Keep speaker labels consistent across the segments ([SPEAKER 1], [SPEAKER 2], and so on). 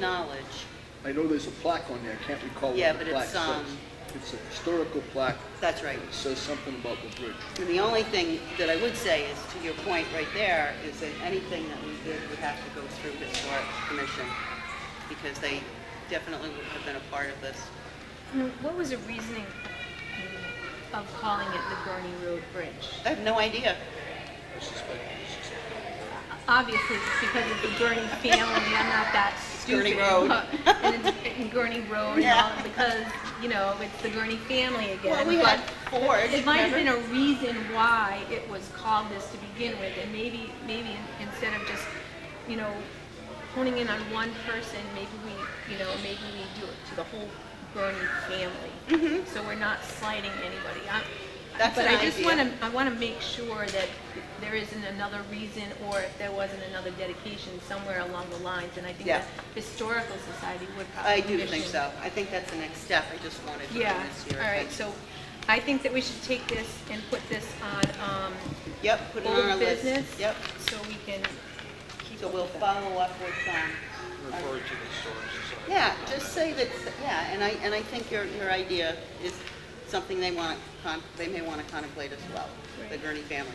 [SPEAKER 1] knowledge.
[SPEAKER 2] I know there's a plaque on there, I can't recall
[SPEAKER 1] Yeah,
[SPEAKER 2] what
[SPEAKER 1] but
[SPEAKER 2] the plaque
[SPEAKER 1] it's, um,
[SPEAKER 2] says. It's a historical plaque,
[SPEAKER 1] That's right.
[SPEAKER 2] it says something about the bridge.
[SPEAKER 1] And the only thing that I would say is, to your point right there, is that anything that we did would have to go through Historic Commission, because they definitely would have been a part of this.
[SPEAKER 3] And Mm, What was the reasoning of calling it the Gurney Road Bridge?
[SPEAKER 1] I have no idea.
[SPEAKER 2] I suspect it's
[SPEAKER 3] Obviously, it's because of the Gurney family, I'm not that stupid.
[SPEAKER 1] Gurney Road.
[SPEAKER 3] And it's and Gurney Road and all,
[SPEAKER 1] Yeah.
[SPEAKER 3] because, you know, it's the Gurney family again.
[SPEAKER 1] Well, we had
[SPEAKER 3] but
[SPEAKER 1] Ford,
[SPEAKER 3] It might have been a
[SPEAKER 1] remember?
[SPEAKER 3] reason why it was called this to begin with, and maybe, maybe in- instead of just, you know, honing in on one person, maybe we, you know, maybe we do it to the whole Gurney family. So we're not slighting anybody. I'm-
[SPEAKER 1] Mm-hmm. That's
[SPEAKER 3] But
[SPEAKER 1] an
[SPEAKER 3] I just
[SPEAKER 1] idea.
[SPEAKER 3] want to I want to make sure that there isn't another reason or if there wasn't another dedication somewhere along the lines. And I think
[SPEAKER 1] Yeah.
[SPEAKER 3] the Historical Society would probably.
[SPEAKER 1] I do think
[SPEAKER 3] commission-
[SPEAKER 1] so. I think that's the next step. I just wanted to do
[SPEAKER 3] Yeah,
[SPEAKER 1] this here.
[SPEAKER 3] all right, so I think that we should take this and put this on
[SPEAKER 1] Yep, put
[SPEAKER 3] um,
[SPEAKER 1] it on our
[SPEAKER 3] old
[SPEAKER 1] list.
[SPEAKER 3] business.
[SPEAKER 1] Yep.
[SPEAKER 3] So we can keep.
[SPEAKER 1] So
[SPEAKER 3] up
[SPEAKER 1] we'll
[SPEAKER 3] with it.
[SPEAKER 1] follow up with, um,
[SPEAKER 4] referred to the Historic Society.
[SPEAKER 1] Yeah, just say that, yeah, and I, and I think your, your idea is something they want, con they may want to contemplate as well, the
[SPEAKER 3] Right.
[SPEAKER 1] Gurney family.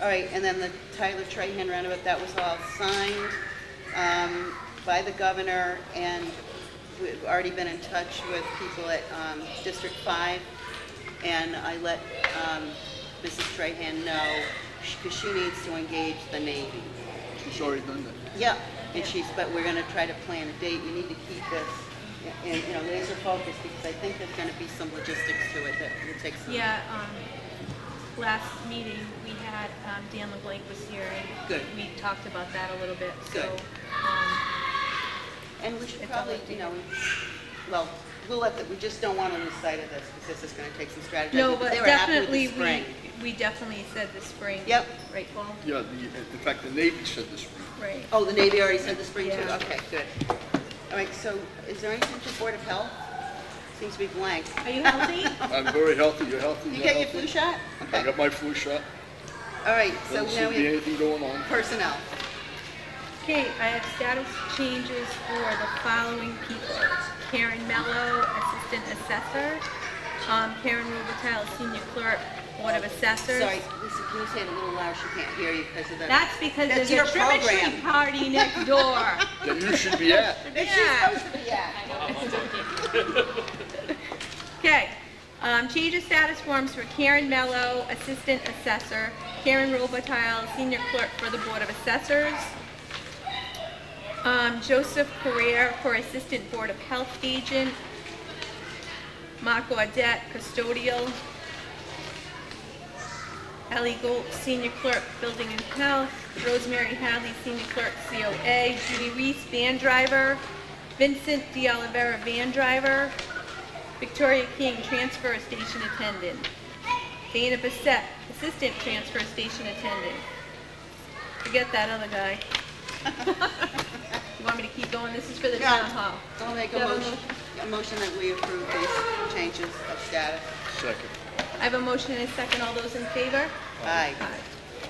[SPEAKER 1] All right, and then the Tyler Trahan roundabout, that was all signed um, by the governor, and we've already been in touch with people at um, District 5, and I let um, Mrs. Trahan know, because she needs to engage the Navy.
[SPEAKER 2] a- She's already done that.
[SPEAKER 1] Yeah, and she's, but we're gonna try to plan a date, you need to keep this, and, you know, laser focused, because I think there's gonna be some logistics to it that will take some.
[SPEAKER 3] Yeah, um, last meeting, we had, um, Dan LeBlanc was here, and
[SPEAKER 1] Good.
[SPEAKER 3] we talked about that a little bit, so.
[SPEAKER 1] Good.
[SPEAKER 3] um,
[SPEAKER 1] And we should
[SPEAKER 3] It's all
[SPEAKER 1] probably,
[SPEAKER 3] up to
[SPEAKER 1] you
[SPEAKER 3] you.
[SPEAKER 1] know, we- well, we'll let, the- we just don't wanna lose sight of this, because this is gonna take some strategy.
[SPEAKER 3] No, but
[SPEAKER 1] They were happy with the
[SPEAKER 3] definitely, we,
[SPEAKER 1] spring.
[SPEAKER 3] we definitely said the spring.
[SPEAKER 1] Yep.
[SPEAKER 3] Right, Paul?
[SPEAKER 2] Yeah, the, in fact, the Navy said this spring.
[SPEAKER 3] Right.
[SPEAKER 1] Oh, the Navy already said the spring too,
[SPEAKER 3] Yeah.
[SPEAKER 1] okay, good. All right, so is there anything to Board of Health? Seems to be blank.
[SPEAKER 3] Are you healthy?
[SPEAKER 2] I'm very healthy, you're healthy,
[SPEAKER 1] You
[SPEAKER 2] you're
[SPEAKER 1] get your flu
[SPEAKER 2] healthy.
[SPEAKER 1] shot?
[SPEAKER 2] I
[SPEAKER 1] Okay,
[SPEAKER 2] got my flu shot,
[SPEAKER 1] all right, so
[SPEAKER 2] doesn't
[SPEAKER 1] now
[SPEAKER 2] seem to be
[SPEAKER 1] we,
[SPEAKER 2] anything going on.
[SPEAKER 1] personnel,
[SPEAKER 3] Okay, I have status changes for the following people. Karen Mello, Assistant Assessor. Um, Karen Rubatile, Senior Clerk, Board of Assessors.
[SPEAKER 1] sorry, Lisa, can you say it a little louder, she can't hear you because of the.
[SPEAKER 3] That's because
[SPEAKER 1] That's
[SPEAKER 3] there's a
[SPEAKER 1] your
[SPEAKER 3] trimetry
[SPEAKER 1] program.
[SPEAKER 3] party next door.
[SPEAKER 2] That you should be at.
[SPEAKER 1] It's
[SPEAKER 3] Yeah.
[SPEAKER 1] supposed to be, yeah.
[SPEAKER 3] Okay, um, change of status forms for Karen Mello, Assistant Assessor, Karen Robitaille, Senior Clerk for the Board of Assessors, um, Joseph Carrere for Assistant Board of Health Agent, Marco Adet, Custodial, Ellie Gold, Senior Clerk, Building and Health, Rosemary Hadley, Senior Clerk, COA, Judy Reese, Van Driver, Vincent De Oliveira, Van Driver, Victoria King, transfer station attendant. Dana Bissette, assistant transfer station attendant. Forget that other guy. You want me to keep going? This is for the town hall.
[SPEAKER 1] I'll make
[SPEAKER 3] Do
[SPEAKER 1] a
[SPEAKER 3] you have
[SPEAKER 1] motion, a motion that we approve these changes of status.
[SPEAKER 2] Second.
[SPEAKER 3] I have a motion and a second. All those in favor?
[SPEAKER 1] Aye.
[SPEAKER 3] Aye.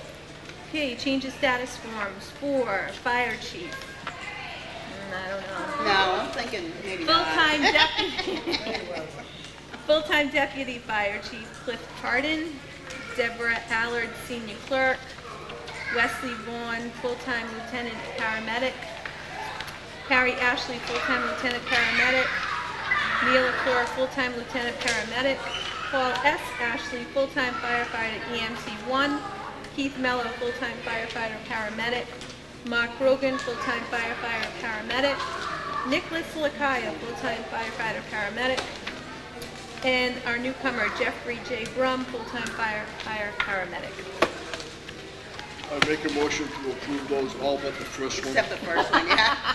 [SPEAKER 3] Okay, change of status forms for fire chief. Mm, I don't know.
[SPEAKER 1] No, I'm thinking maybe not.
[SPEAKER 3] Full-time deputy, full-time deputy fire chief Cliff Pardon, Deborah Allard, senior clerk, Wesley Vaughn, full-time lieutenant paramedic, Harry Ashley, full-time lieutenant paramedic, Neil LaFleur, full-time lieutenant paramedic, Paul S. Ashley, full-time firefighter EMC one, Keith Mello, full-time firefighter paramedic, Mark Rogan, full-time firefighter paramedic, Nicholas Lakaya, full-time firefighter paramedic, and our newcomer Jeffrey J. Brum, full-time firefighter paramedic.
[SPEAKER 2] I make a motion to approve those, all but the first one.
[SPEAKER 1] Except the first one, yeah.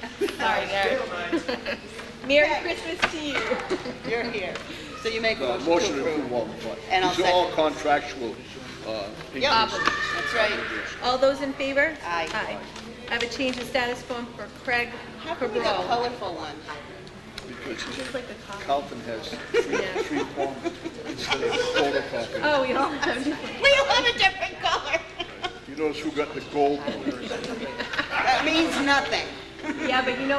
[SPEAKER 3] Sorry, Gary. Merry Christmas to you.
[SPEAKER 1] You're here. So you make a
[SPEAKER 2] No,
[SPEAKER 1] Uh, motion
[SPEAKER 2] Uh, motion
[SPEAKER 1] to approve.
[SPEAKER 2] all the five.
[SPEAKER 1] And I'll
[SPEAKER 2] These are all
[SPEAKER 1] second.
[SPEAKER 2] contractual uh,
[SPEAKER 1] Yeah,
[SPEAKER 2] increases.
[SPEAKER 1] that's right.
[SPEAKER 3] All those in favor?
[SPEAKER 1] Aye.
[SPEAKER 3] I have a change of status form for Craig
[SPEAKER 1] How come we got
[SPEAKER 3] Cabral.
[SPEAKER 1] colorful one?
[SPEAKER 2] Because
[SPEAKER 3] Just like the cop.
[SPEAKER 2] Calvin has three,
[SPEAKER 3] Yeah.
[SPEAKER 2] three forms instead of photocopy.
[SPEAKER 3] Oh, we all have different.
[SPEAKER 1] We all have a different color.
[SPEAKER 2] You notice who got the gold one?
[SPEAKER 1] That means nothing.
[SPEAKER 3] Yeah, but you know